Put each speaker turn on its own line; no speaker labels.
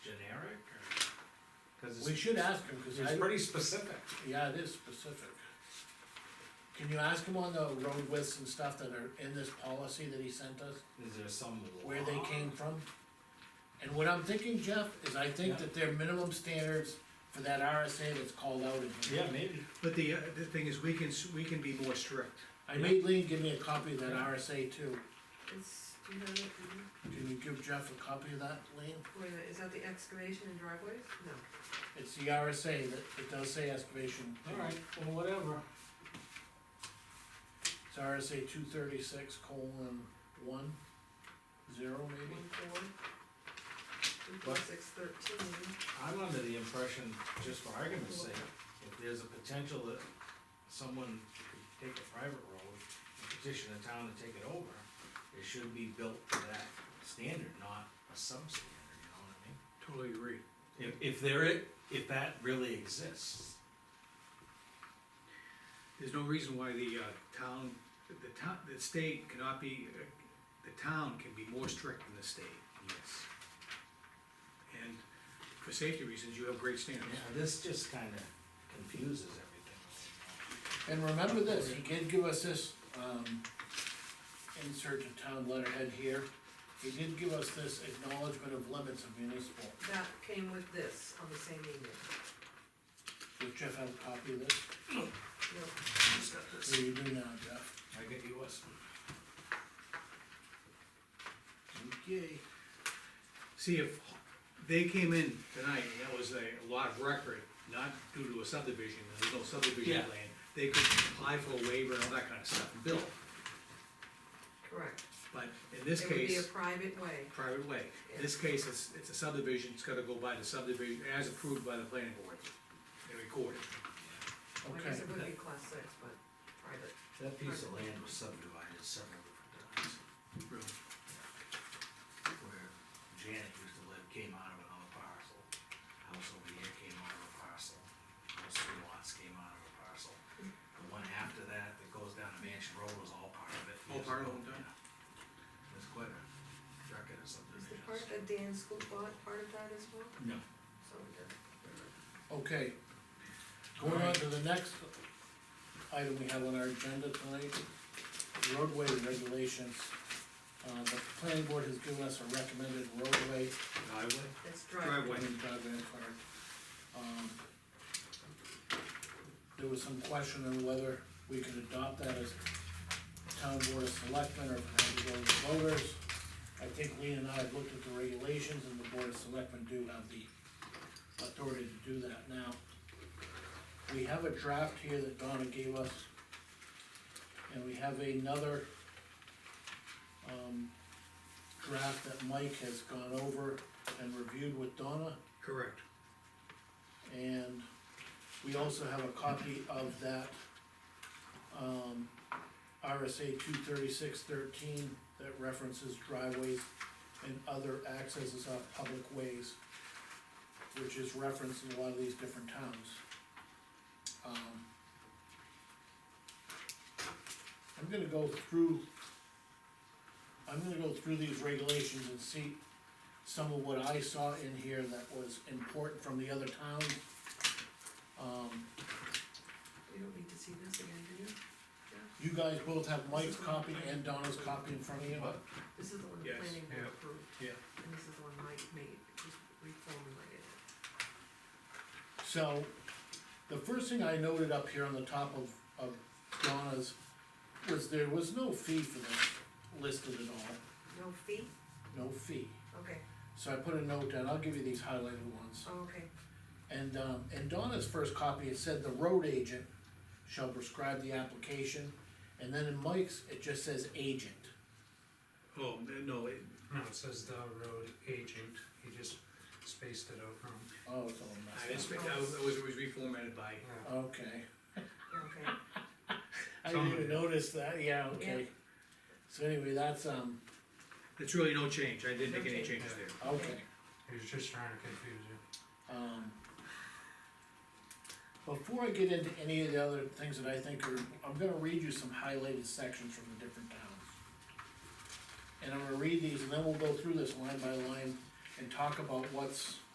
Cause
We
it's,
should ask him, cause
it's
I,
pretty specific.
yeah, it is specific. Can you ask him on the road widths and stuff that are in this policy that he sent us,
Is there some law?
where they came from? And what I'm thinking, Jeff, is I think
Yeah.
that their minimum standards for that RSA that's called out in here.
Yeah, maybe.
But the, uh, the thing is, we can, s- we can be more strict.
I made Lean give me a copy of that RSA too.
Is, do you have it, mhm.
Can you give Jeff a copy of that, Lean?
Wait a minute, is that the excavation and driveways? No.
It's the RSA that, it does say excavation.
Alright, well, whatever.
It's RSA two thirty-six colon one, zero maybe?
One four. Two four six thirteen.
I'm under the impression, just for argument's sake, if there's a potential that someone could take a private road and petition a town to take it over, it should be built to that standard, not a substandard, you know what I mean?
Totally agree.
If, if there is, if that really exists.
There's no reason why the, uh, town, the town, the state cannot be, uh, the town can be more strict than the state.
Yes.
And for safety reasons, you have great standards.
this just kinda confuses everything.
And remember this, he did give us this, um, insert a town letterhead here. He did give us this acknowledgement of limits of municipal.
That came with this on the same email.
Does Jeff have a copy of this?
No,
Just got
What do you do now, Jeff?
I get yours.
Okay.
See, if they came in tonight, and that was a lot of record, not due to a subdivision, and there's no subdivision
Yeah.
plan, they could apply for a waiver and all that kind of stuff, and build.
correct.
But in this
It would be a
case,
private way.
private way, in this case, it's, it's a subdivision, it's gotta go by the subdivision, as approved by the planning board, and recorded.
I
Okay,
guess it would be class six, but private.
That piece of land was subdivided several different times.
Really.
where Janet used to live came out of another parcel. House over here came out of a parcel, those three lots came out of a parcel. The one after that, that goes down to Mansion Road was all part of it.
All part of it,
Yeah.
done.
There's quite a record of
Is the part
subdivisions.
that Dan Scoop bought part of that as well?
No.
So we did.
okay. Going on to the next item we have on our agenda tonight, roadway regulations. Uh, the planning board has given us a recommended roadway
Driveway?
That's driveway.
Driveway.
Wayne Bradley and Clark. Um, There was some question on whether we could adopt that as town board of selectmen or if it had to go to the voters. I think Lean and I have looked at the regulations and the board of selectmen do have the authority to do that now. We have a draft here that Donna gave us. And we have another um, draft that Mike has gone over and reviewed with Donna.
Correct.
And we also have a copy of that, um, RSA two thirty-six thirteen that references driveways and other accesses off public ways, which is referenced in a lot of these different towns. Um, I'm gonna go through, I'm gonna go through these regulations and see some of what I saw in here that was important from the other town. Um,
We don't need to see this again, do you?
you guys both have Mike's copy and Donna's copy in front of you.
What?
This is the one the
Yes,
planning board
yeah,
approved.
yeah.
And this is the one Mike made, just reformulated. it.
So, the first thing I noted up here on the top of, of Donna's was there was no fee for this listed at all,
No fee?
no fee.
Okay,
So I put a note down, I'll give you these highlighted ones.
oh, okay.
And, um, in Donna's first copy, it said the road agent shall prescribe the application. And then in Mike's, it just says agent.
Oh, no, it,
No, it says the road agent, he just spaced it out wrong.
Oh, it's all
I
messed
didn't spe- that was, that was was reformatted by,
Yeah.
up. Okay.
Okay,
I didn't even
Somebody.
notice that, yeah, okay. So anyway, that's, um,
it's really no change, I didn't
No
make any
change.
changes there.
okay,
He was just trying to confuse you.
um. Before I get into any of the other things that I think are, I'm gonna read you some highlighted sections from the different towns. And I'm gonna read these and then we'll go through this line by line and talk about what's